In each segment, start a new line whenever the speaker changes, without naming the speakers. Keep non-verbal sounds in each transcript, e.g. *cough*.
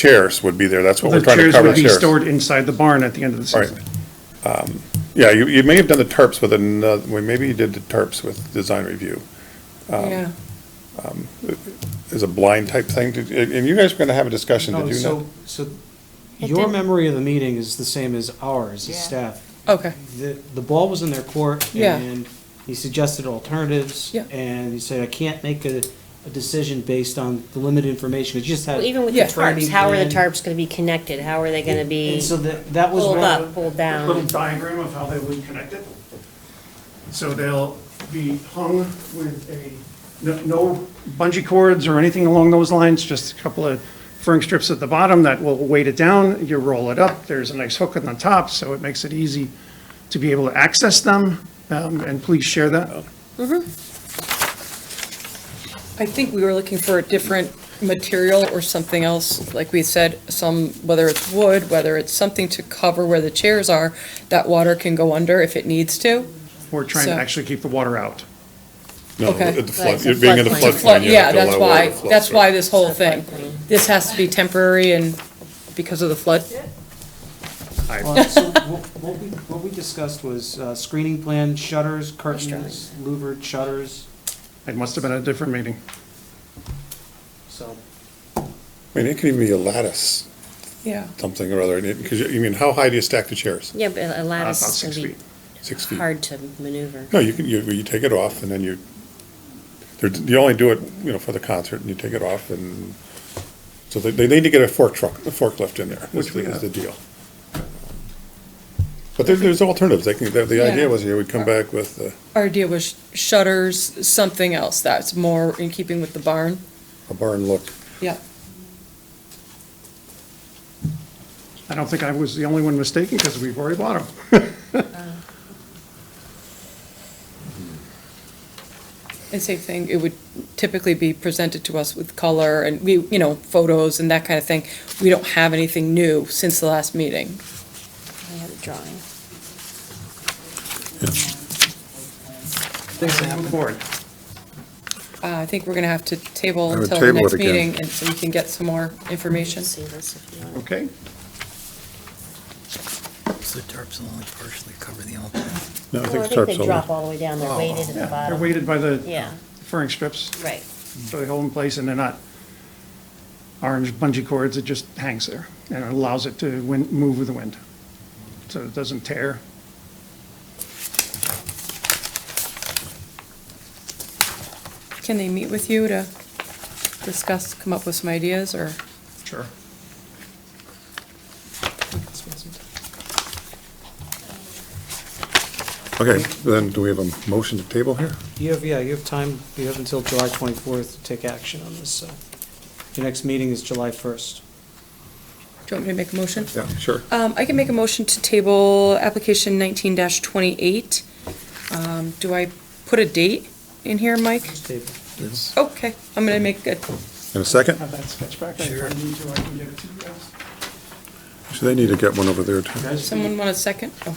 chairs would be there, that's what
The
we're trying to
chairs
cover,
would be
chairs.
stored inside the barn at the end of the
Right.
season.
Yeah, you, you may have done the tarps with another, well, maybe you did the tarps with design review,
Yeah.
as a blind type thing, Did- and you guys were gonna have a discussion,
No,
Oh,
did you not?
Oh, so, so
It
your
didn't-
memory of the meeting is the same as ours, as
Yeah.
staff.
Okay.
The, the ball was in their court
Yeah.
and he suggested alternatives.
Yeah.
And he said, I can't make a, a decision based on the limited information, because you just had.
Well, even with the
Yeah.
tarps, how are the
Brandy
tarps gonna be connected? How are they gonna be
And so that, that was.
pulled
where-
up, pulled
A Little
down?
diagram of how they would connect it. So they'll be hung with a, no- no bungee cords or anything along those lines, just a couple of furring strips at the bottom that will weight it down, you roll it up, there's a nice hook on the top, so it makes it easy to be able to access them, um, and please share that.
I think we were looking for a different material or something else, like we said, some, whether it's wood, whether it's something to cover where the chairs are, that water can go under if it needs to.
We're trying to
So-
actually keep the water out.
No,
Okay.
at the
Right,
flood,
so
you're being in the
floodplain.
floodplain. you
Yeah,
have to
that's
allow water
why,
to flow
that's
through.
why this whole thing. This has to be temporary and because of the flood.
Well, uh, so
*laughs*
What what we, what we discussed was uh, screening plan, shutters, curtains, louvered shutters,
It must have been a different meeting.
so.
I mean, it could even be a lattice,
Yeah.
something or other, because, you mean, how high do you stack the chairs?
Yeah, but a
Uh, About
lattice is
six
gonna
feet.
Six
be
feet?
hard to maneuver.
No, you can, you, you take it off and then you, they're- you only do it, you know, for the concert and you take it off and, so they, they need to get a fork truck, a forklift in there, is
Which we
the, is
have.
the deal. But there, there's alternatives, they can, the, the idea
Yeah.
was you would come back with, uh,
Our idea was shutters, something else that's more in keeping with the barn.
a barn look.
Yeah.
I don't think I was the only one mistaken, because we've already bought them.
And same thing, it would typically be presented to us with color and we, you know, photos and that kind of thing. We don't have anything new since the last meeting.
I have a drawing.
Things happen.
Board.
Uh, I think we're gonna have to
I
table
would
until the
table it
next
again.
meeting and so we can get some more information.
See this if you want.
Okay.
So the tarps will only partially cover the altar.
No, I
Well,
think
I
it
think
starts
they drop all the way down, they're weighted at the
Oh, Yeah, they're
bottom.
weighted by the
Yeah,
furring strips,
right.
so they hold in place, and they're not orange bungee cords, it just hangs there, and it allows it to win, move with the wind, so it doesn't tear.
Can they meet with you to discuss, come up with some ideas or?
Sure.
Okay, then do we have a motion to table here?
You have, yeah, you have time, you have until July 24th to take action on this, so. Your next meeting is July 1st.
Do you want me to make a motion?
Yeah, sure.
Um, I can make a motion to table application nineteen twenty-eight. Um, do I put a date in here, Mike?
Table.
Okay, I'm gonna make a,
In a second?
Have that sketch back, if I need to, I can get it to you guys.
So they need to get one over there too.
someone want a second? Oh,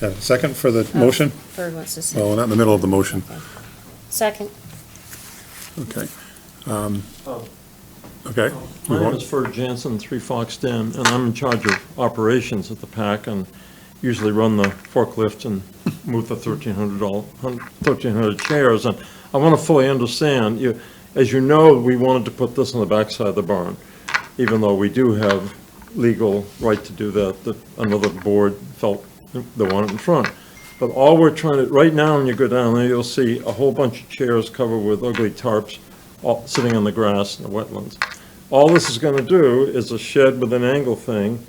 Yeah, second for the motion?
Bird wants to say.
Well, not in the middle of the motion,
Second,
okay. Um, Okay. We
My name
want-
is Ferg Jansen, Three Fox Den, and I'm in charge of operations at the PAC and usually run the forklift and move the 1,300 doll- hun- 1,300 chairs. And I want to fully understand, you, as you know, we wanted to put this on the backside of the barn, even though we do have legal right to do that, that another board felt they wanted in front. But all we're trying to, right now, when you go down there, you'll see a whole bunch of chairs covered with ugly tarps, all, sitting on the grass in the wetlands. All this is gonna do is a shed with an angle thing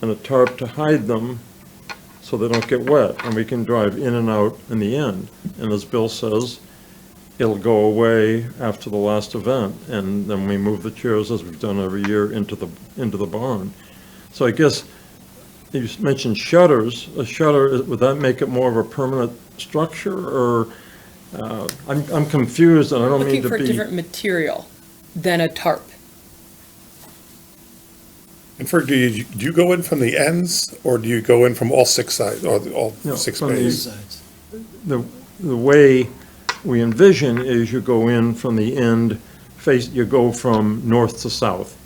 and a tarp to hide them so they don't get wet, and we can drive in and out in the end. And as Bill says, it'll go away after the last event, and then we move the chairs, as we've done every year, into the, into the barn. So I guess, you s- mentioned shutters, a shutter, would that make it more of a permanent structure, or, uh, I'm, I'm confused, and I don't
looking
mean to be.
for a different material than a tarp.
And Ferg, do you, do you go in from the ends, or do you go in from all six sides, or the- all
No,
six
from the-
bays?
the, the way we envision is you go in from the end, face, you go from north to south.